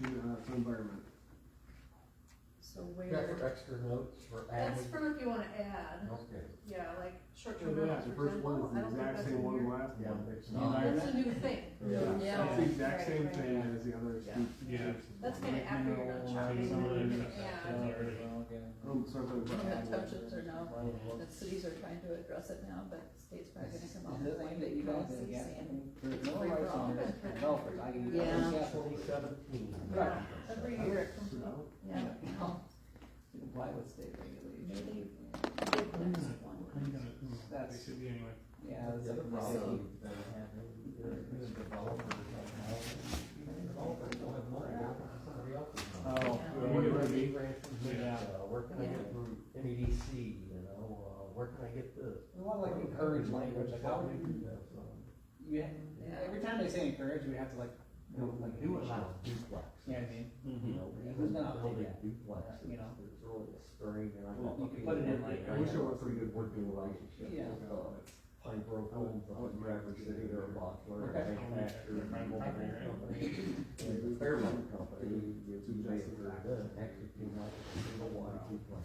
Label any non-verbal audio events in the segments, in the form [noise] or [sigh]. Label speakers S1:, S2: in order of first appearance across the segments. S1: juvenile environment.
S2: So
S3: Got for
S2: where,
S3: extra notes for
S2: that's
S3: adding?
S2: for if you wanna add,
S3: Okay.
S2: yeah, like short-term
S1: Yeah,
S2: rentals,
S1: the
S2: for
S1: first
S2: example,
S1: one's
S2: I
S1: the
S2: don't think
S1: exact
S2: that's in
S1: same one, the
S2: here.
S1: last
S3: Yeah,
S1: one.
S3: it's
S4: Yeah.
S3: not.
S4: Environment.
S2: That's a new thing,
S3: Yeah.
S2: Yeah.
S1: It's the exact
S2: Right,
S1: same
S2: right.
S1: thing as the other
S4: Yeah.
S1: speech.
S5: Yeah.
S2: that's kinda after you're done shopping,
S5: Some of
S2: then you can
S5: them have that
S2: add.
S5: already.
S1: Um, something about.
S6: Yeah, touches are now, the cities are trying to address it now, but states are gonna come up with a way that you don't see sand.
S4: There's no rights on this for golfers, I can.
S6: Yeah.
S3: Seventeen.
S4: Right.
S2: Every
S4: Here
S2: year.
S4: it
S1: Put it out.
S6: Yeah,
S4: [laughs]
S6: no, to comply with state regulations.
S5: I'm gonna- They should be anyway.
S4: Yeah, that's a problem.
S3: problem. This developer, developers don't have money, they're working for somebody else's money.
S4: Oh,
S5: Yeah.
S3: Where do I
S5: Yeah.
S3: get grants from this?
S5: Yeah.
S3: Uh, Where can I get from MEDC, you know, uh, where can I get this?
S4: we want like encourage language, like how would
S3: do
S4: you,
S3: you know, so-
S4: you, ha- yeah, every time they say encourage, we have to like, you know, like do it.
S3: Allow duplex.
S4: You know what I mean?
S3: You know,
S4: Yeah,
S3: who's
S4: who's
S3: gonna
S4: gonna
S3: build a
S4: update that?
S3: duplex,
S4: Uh, you
S3: it's,
S4: know?
S3: it's really a stirring, and I'm.
S1: Well,
S4: you could put it in like-
S3: I wish it was "Oh, a good working relationship.
S4: Yeah.
S3: with, uh, Pine Grove Homes, up in Rapid City, they're a bottler,
S4: Okay.
S3: a manufacturer, a mobile [laughs] company. And Fairmont Company, you two days later, actually came out with a single wide duplex.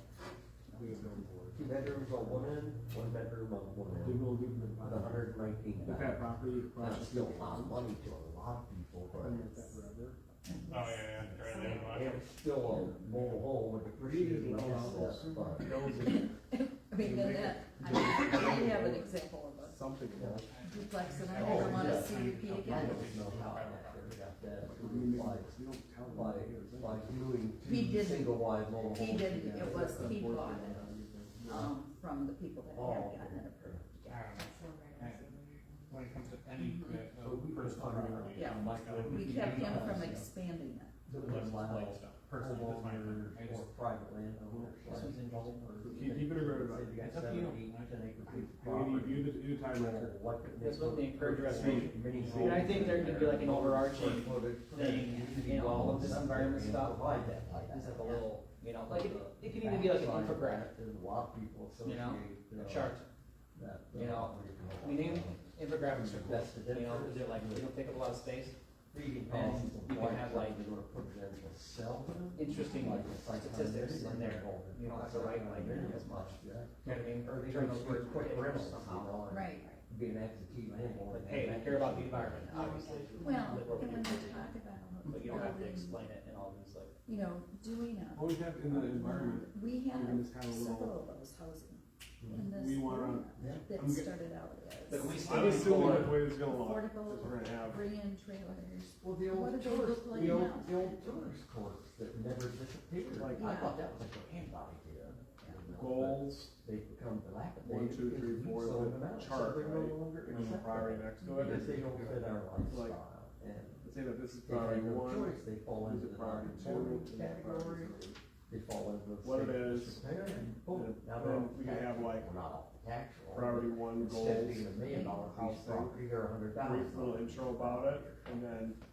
S1: We have done for it.
S3: Two bedrooms on one end, one bedroom on one
S1: They
S3: end,
S1: will give them
S3: about a hundred and nineteen
S1: With that
S3: thousand.
S1: property across.
S3: That's still a lot of money to a lot of people, but
S1: Been with that
S3: it's-
S1: forever.
S5: Oh, yeah, yeah, right there, watch
S3: Yeah,
S5: it.
S3: It's still a mobile home with appreciating assets, but
S6: I mean, then that, I mean, we have an example of a
S1: Something.
S3: you know,
S6: duplex and I never want
S4: Oh,
S6: a CUP again.
S3: I don't know how that ever got that
S1: You
S3: by,
S1: don't tell them.
S3: by, by doing
S6: He
S3: two
S6: didn't.
S3: single wide mobile homes.
S6: He didn't,
S3: together.
S6: it was, he
S3: Unfortunately,
S6: bought it, um, from the people that
S3: Oh,
S6: had
S3: okay.
S6: gotten it approved.
S5: I don't know. Um, When it comes to any bit
S3: So we
S5: of
S3: were
S5: personal
S3: talking about.
S5: property.
S6: Yeah.
S5: I'm like, oh,
S6: We kept him from expanding it.
S3: The
S5: let's just
S3: allow
S5: like stuff. Personally, that's my
S3: homeowner
S5: I
S3: or
S5: just-
S3: private landowner.
S4: This was involved.
S1: You, you better write about
S3: Say
S1: it.
S3: you got
S5: It's up to you.
S3: seventy, ten acre piece of
S1: You,
S3: property.
S1: you, you, you time record.
S4: That's what they encourage us to do.
S3: Many
S5: And
S3: cities.
S5: I
S4: think there could be like an overarching thing in all of this environment stuff.
S3: Provide that, like,
S4: Just have a little, you know, like, it- it can
S3: back
S4: even be like an
S3: side
S4: infographic,
S3: of that, There's a lot of people
S4: you
S3: associate.
S4: know,
S3: uh,
S4: a chart,
S3: that,
S4: you
S3: uh,
S4: know, I mean, they- infographics are
S3: That's the
S4: cool, you
S3: difference.
S4: know, because they're like, they don't take up a lot of space.
S3: Reading
S4: and
S3: policies
S4: you
S3: and
S4: can have,
S3: why
S4: like,
S3: something would put it as a cell.
S4: Interesting
S3: Like a psychometric
S4: statistics in there, you don't have to write like
S3: Yeah.
S4: as much,
S3: Yeah.
S4: you know what I mean?
S3: Or
S4: Or
S3: they
S4: turn
S3: turn
S4: those words
S3: quick
S4: quick
S3: rentals
S4: somehow.
S3: somehow.
S6: Right.
S3: Be an absentee landlord.
S4: Like, hey, I care about the environment, obviously.
S6: Well,
S4: Live where we
S6: and when
S4: do.
S6: we talk about.
S4: But you don't have to
S6: building,
S4: explain it in all these like,
S6: You know, doing a
S1: Always have in the environment,
S6: We
S1: in
S6: have
S1: this kind of
S6: several
S1: world.
S6: of those housing in
S3: Mhm.
S6: this
S1: We wanna-
S6: area
S3: Yeah.
S1: I'm
S6: that
S1: get-
S6: started out
S4: but we
S6: as
S4: still
S1: I'm
S4: need
S1: assuming
S4: more-
S1: that the way this is gonna look, is
S6: affordable
S1: we're gonna have.
S6: bring-in trailers.
S3: Well, the old
S6: What do they
S3: tourist,
S6: look like
S3: the old,
S6: now?
S3: the old tourist courts that never disappeared, like, I
S6: Yeah.
S3: thought that was like a handout idea. you know,
S1: goals,
S3: but They've become dilapidated.
S1: one, two, three, four,
S3: So
S1: the
S3: they're not- so
S1: chart,
S3: they're no
S1: right? Mm-hmm.
S3: longer
S1: and then the
S3: accepted.
S1: priority next to it.
S3: Because they don't fit our lifestyle, and
S1: Let's say that this is
S3: if they have
S1: priority
S3: no
S1: one,
S3: choice, they fall
S1: this
S3: into
S1: is
S3: the
S1: priority
S3: non-conforming
S1: two, this is priority
S3: category,
S1: three.
S3: they fall into the.
S1: What it
S3: state
S1: is,
S3: disrepair, and boom,
S1: and
S3: now
S1: then
S3: they're off
S1: we
S3: the
S1: could
S3: tax
S1: have,
S3: roll.
S1: like,
S3: Well, not off the tax roll,
S1: Priority
S3: but
S1: one
S3: instead of
S1: goals,
S3: being a million dollar
S1: house
S3: piece of
S1: thing,
S3: property or a hundred thousand.
S1: brief little intro about it, and then
S3: Because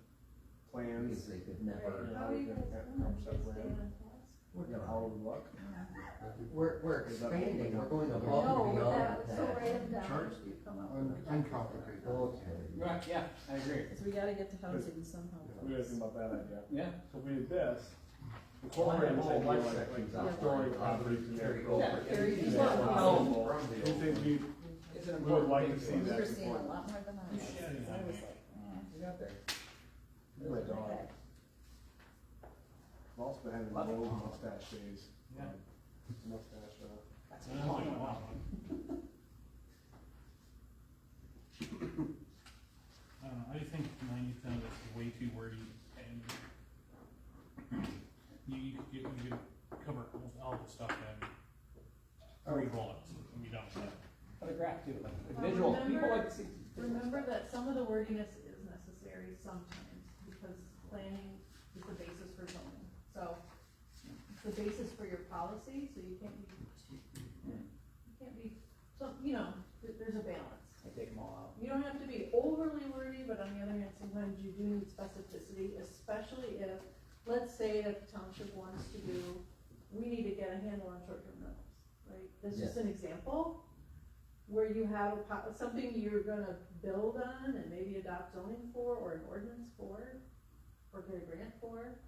S1: plans,
S3: they could never.
S1: How are you guys doing? Just staying
S3: We're
S1: you know,
S3: gonna-
S1: how it would look.
S3: We're, we're expanding, we're going above and beyond that. Okay.
S4: Right, yeah, I agree,
S6: Cause we gotta get to housing somehow.
S1: What do you guys think about that idea?
S4: yeah.
S1: So if we did this, incorporate this
S3: Whole
S1: idea
S3: life
S1: like,
S3: sections
S1: like
S3: out.
S1: story property to
S3: There
S1: their
S3: you go.
S4: Yeah,
S6: Very
S3: Yeah.
S6: easy.
S3: Well,
S1: Well,
S3: from the
S1: Do you think we,
S4: It's an
S1: We would
S4: important
S1: like
S4: thing
S1: to
S4: to
S1: see
S4: us.
S6: We
S1: that.
S6: were seeing a lot more than I was,
S5: Yeah,
S6: so I was like, eh,
S4: We got there.
S1: my dog,
S6: okay.
S1: I've also been having
S4: Love it.
S1: old mustache days.
S4: Yeah.
S1: Mustache, uh,
S4: That's
S5: I don't know, wow. I don't know, Uh, I just think ninety percent of this is way too wordy and you, you could get, you could cover almost all the stuff in three bullets and be done with it.
S4: What a graph too, like
S2: Well,
S4: visual, people
S2: remember-
S4: like to see. visual
S2: Remember
S4: stuff.
S2: that some of the wordiness is necessary sometimes, because planning is the basis for zoning, so it's the basis for your policy, so you can't be, you can't be, so, you know, there- there's a balance.
S4: I take them all out.
S2: You don't have to be overly wordy, but on the other hand, sometimes you do need specificity, especially if, let's say that the township wants to do, we need to get a handle on short-term rentals, right? That's just an example, where you have a po- something you're gonna build on and maybe adopt zoning for, or an ordinance for, or get a grant for.